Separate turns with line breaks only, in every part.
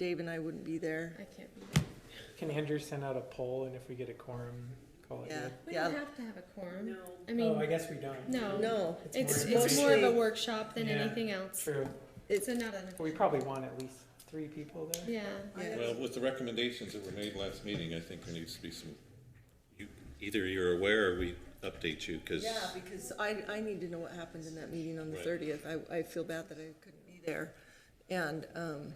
Dave and I wouldn't be there.
I can't. be-
Can Andrew send out a poll and if we get a quorum, call it
Yeah,
good?
We don't
yeah.
have to have a quorum.
No.
I
Oh, I
mean,
guess we don't.
no,
No,
it's,
more-
it's more of a
mostly-
workshop than
Yeah.
anything else.
True.
It's-
So not an,
But we probably want at least three people there.
yeah.
Yeah.
Well, with the recommendations that were made last meeting, I think there needs to be some, you, either you're aware or we update you, cause.
yeah, because I, I need to know what happened in that meeting on the
Right.
thirtieth. I, I feel bad that I couldn't be there. And, um,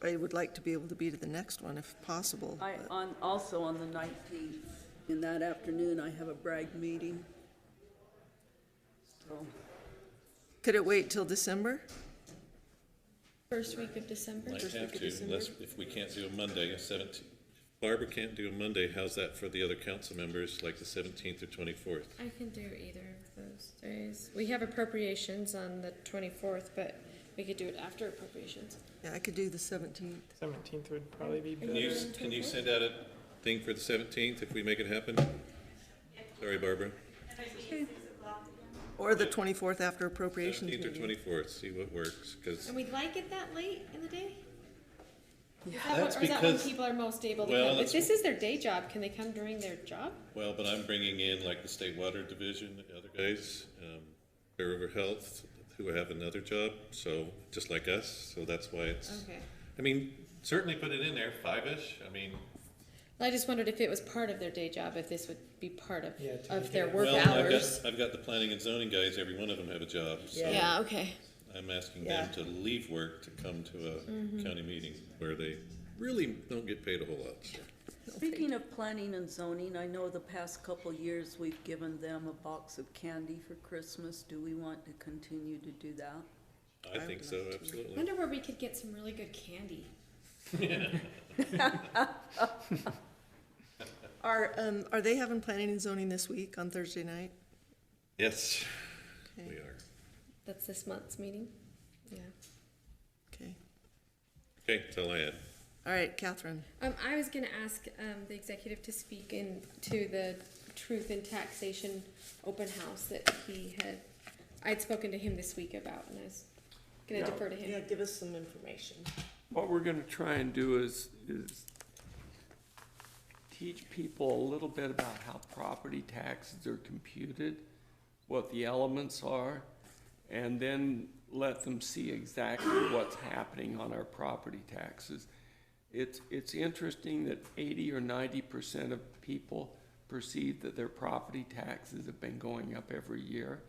I would like to be able to be to the next one if possible.
I,
but-
on, also on the nineteenth, in that afternoon, I have a brag meeting. So,
Could it wait till December?
First week of December.
Might
First
have
week of
to,
December.
unless, if we can't do a Monday, a seventeen, if Barbara can't do a Monday, how's that for the other council members, like the seventeenth or twenty-fourth?
I can do either of those days. We have appropriations on the twenty-fourth, but we could do it after appropriations.
Yeah, I could do the seventeenth.
Seventeenth would probably be
you
Can you,
better.
s- can you send out a thing for the seventeenth if we make it happen? Sorry, Barbara.
Or the twenty-fourth after appropriations
Seventeenth or
meeting.
twenty-fourth, see what works, cause,
And we like it that late in the day? Yeah,
That's
Or is that when
because-
people are most able to
Well,
come? If
that's-
this is their day job, can they come during their job?
well, but I'm bringing in like the state water division, the other guys, um, Bear River Health, who have another job, so, just like us, so that's why it's,
Okay.
I mean, certainly put it in there, five-ish, I mean,
Well, I just wondered if it was part of their day job, if this would be part of,
Yeah, to
of
make
their
it-
work
Well, I've got,
hours.
I've got the planning and zoning guys, every one of them have a job, so
Yeah, okay.
I'm asking them to leave work to come to
Mm-hmm.
a county meeting where they really don't get paid a whole lot. so.
speaking of planning and zoning, I know the past couple years, we've given them a box of candy for Christmas. Do we want to continue to do that?
I think so, absolutely.
Wonder where we could get some really good candy.
Are, um, are they having planning and zoning this week on Thursday night?
Oh, Yes,
Okay.
we are.
That's this month's meeting? Yeah.
Okay.
Okay, that's all I had.
All right, Catherine.
Um, I was gonna ask, um, the executive to speak in, to the truth in taxation open house that he had, I'd spoken to him this week about, and I was gonna defer to him.
give us some information.
What we're gonna try and do is, is teach people a little bit about how property taxes are computed, what the elements are, and then let them see exactly what's happening on our property taxes. It's, it's interesting that eighty or ninety percent of people perceive that their property taxes have been going up every year.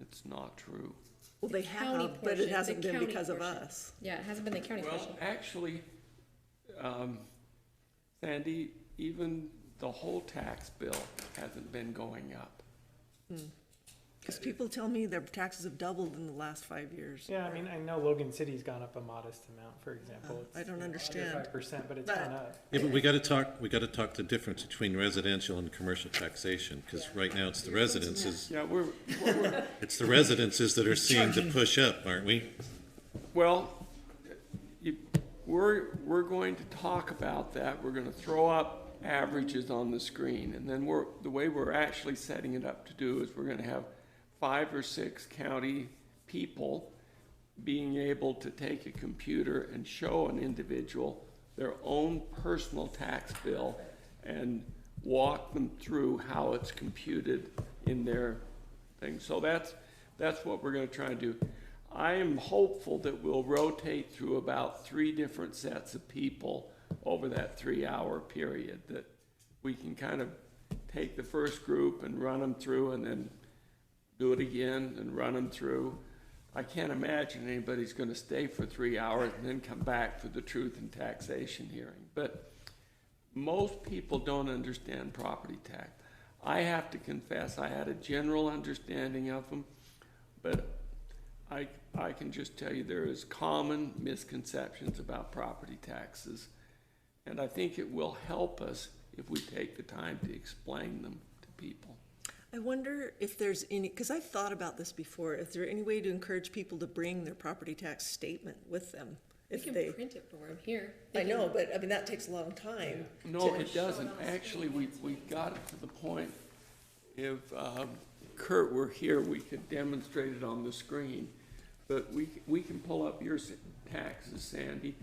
It's not true.
Well, they
county
have, but
portion,
it
the
hasn't been
county
because of
portion.
us.
Yeah, it hasn't been the county portion.
Well, actually, um, Sandy, even the whole tax bill hasn't been going up.
Because people tell me their taxes have doubled in the last five years.
Yeah, I mean, I know Logan City's gone up a modest amount, for example.
Oh, I don't understand.
Five percent, but it's
But-
gone up.
Yeah, but we gotta talk, we gotta talk the difference between residential and commercial taxation, cause right now it's the residences,
Yeah, we're,
it's the residences that are seeing the push up, aren't we?
well, you, we're, we're going to talk about that. We're gonna throw up averages on the screen. And then we're, the way we're actually setting it up to do is we're gonna have five or six county people being able to take a computer and show an individual their own personal tax bill and walk them through how it's computed in their thing. So that's, that's what we're gonna try and do. I am hopeful that we'll rotate through about three different sets of people over that three-hour period, that we can kind of take the first group and run them through and then do it again and run them through. I can't imagine anybody's gonna stay for three hours and then come back for the truth and taxation hearing. But most people don't understand property tax. I have to confess, I had a general understanding of them, but I, I can just tell you there is common misconceptions about property taxes. And I think it will help us if we take the time to explain them to people.
I wonder if there's any, because I've thought about this before, is there any way to encourage people to bring their property tax statement with them?
We
If
can
they,
print it for him here. They
I
can-
know, but I mean, that takes a long time.
No, it doesn't. Actually, we, we got it to the point, if um, Kurt were here, we could demonstrate it on the screen. But we, we can pull up your, s- taxes, Sandy.